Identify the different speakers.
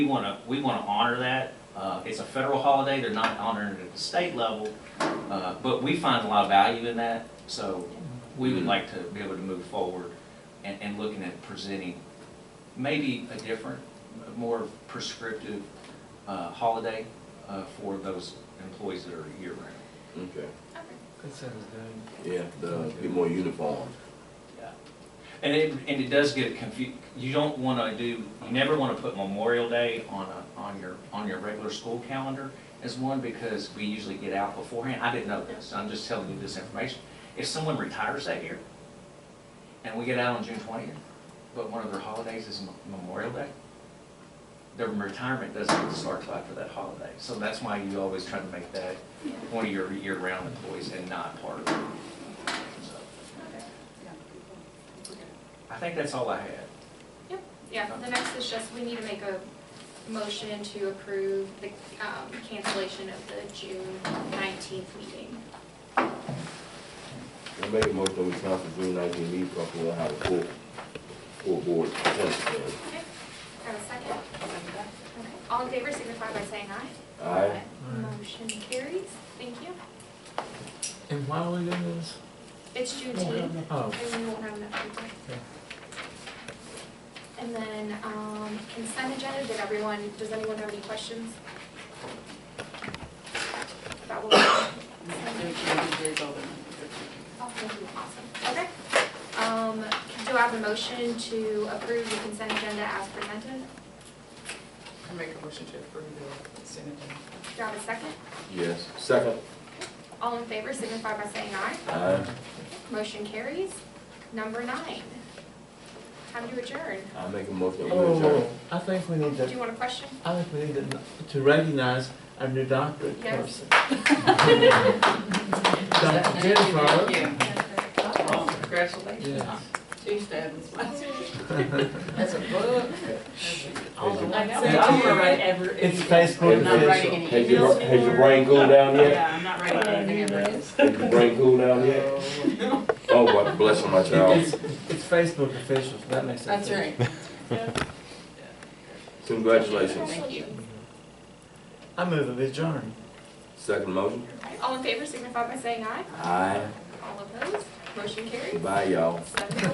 Speaker 1: We want to, we want to honor that. Uh, It's a federal holiday, they're not honoring it at the state level, uh, but we find a lot of value in that, so we would like to be able to move forward and, and looking at presenting maybe a different, more prescriptive uh, holiday uh, for those employees that are year-round.
Speaker 2: Okay,
Speaker 3: That sounds good.
Speaker 2: yeah, the, uh, be more uniform.
Speaker 1: Yeah, And it, and it does get confused, you don't wanna do, you never wanna put Memorial Day on a, on your, on your regular school calendar as one, because we usually get out beforehand, I didn't know this, I'm just telling you this information. If someone retires that year, and we get out on June twentieth, but one of their holidays is Mem- Memorial Day, their retirement doesn't start till after that holiday, so that's why you always try to make that one of your year-round employees and not part of it. So, I think that's all I had.
Speaker 4: Yeah, the next is just, we need to make a motion to approve the um, cancellation of the June nineteenth meeting.
Speaker 2: I made a motion we cancel June nineteenth meeting, so we'll have a full, full board. present.
Speaker 4: Okay, have a second? Okay. All in favor signify by saying aye.
Speaker 2: Aye,
Speaker 4: Motion carries, thank you.
Speaker 3: And why are we doing this?
Speaker 4: It's Juneteenth,
Speaker 3: Oh,
Speaker 4: and we won't have enough people.
Speaker 3: Okay.
Speaker 4: And then um, consent agenda, did everyone, does anyone have any questions? About what?
Speaker 5: Their changes is over.
Speaker 4: Oh, thank you, awesome, okay. Um, do I have a motion to approve the consent agenda as presented?
Speaker 5: I make a motion to approve the consent agenda.
Speaker 4: Do I have a second?
Speaker 2: yes, second.
Speaker 4: All in favor signify by saying aye.
Speaker 2: Aye,
Speaker 4: Motion carries. Number nine. Time to adjourn.
Speaker 2: I make a motion we
Speaker 3: oh,
Speaker 2: adjourn.
Speaker 3: I think we need
Speaker 4: Do you
Speaker 3: to,
Speaker 4: want a question?
Speaker 3: I think we need to, to recognize our new doctorate
Speaker 4: Yes.
Speaker 3: person. Dr. Jennifer.
Speaker 5: Oh, Congratulations.
Speaker 3: Yes.
Speaker 5: Two stabs.
Speaker 6: That's a book.
Speaker 2: Has your-
Speaker 6: I
Speaker 3: Say it.
Speaker 6: don't write ever.
Speaker 3: It's
Speaker 6: any-
Speaker 3: Facebook
Speaker 6: I'm not writing any
Speaker 3: official.
Speaker 2: Has your,
Speaker 6: emails
Speaker 2: has your
Speaker 6: anymore.
Speaker 2: brain cooled down yet?
Speaker 6: Yeah, I'm not writing anything ever. It's-
Speaker 2: Has your brain cooled down yet? Oh, well, bless my
Speaker 3: It's,
Speaker 2: child.
Speaker 3: it's Facebook official, so that makes sense.
Speaker 6: That's right.
Speaker 2: Congratulations.
Speaker 6: Thank you.
Speaker 3: I move a bit adjourn.
Speaker 2: Second motion?
Speaker 4: All in favor signify by saying aye.
Speaker 2: Aye,
Speaker 4: All opposed? Motion carries.
Speaker 2: bye, y'all.
Speaker 4: Seven to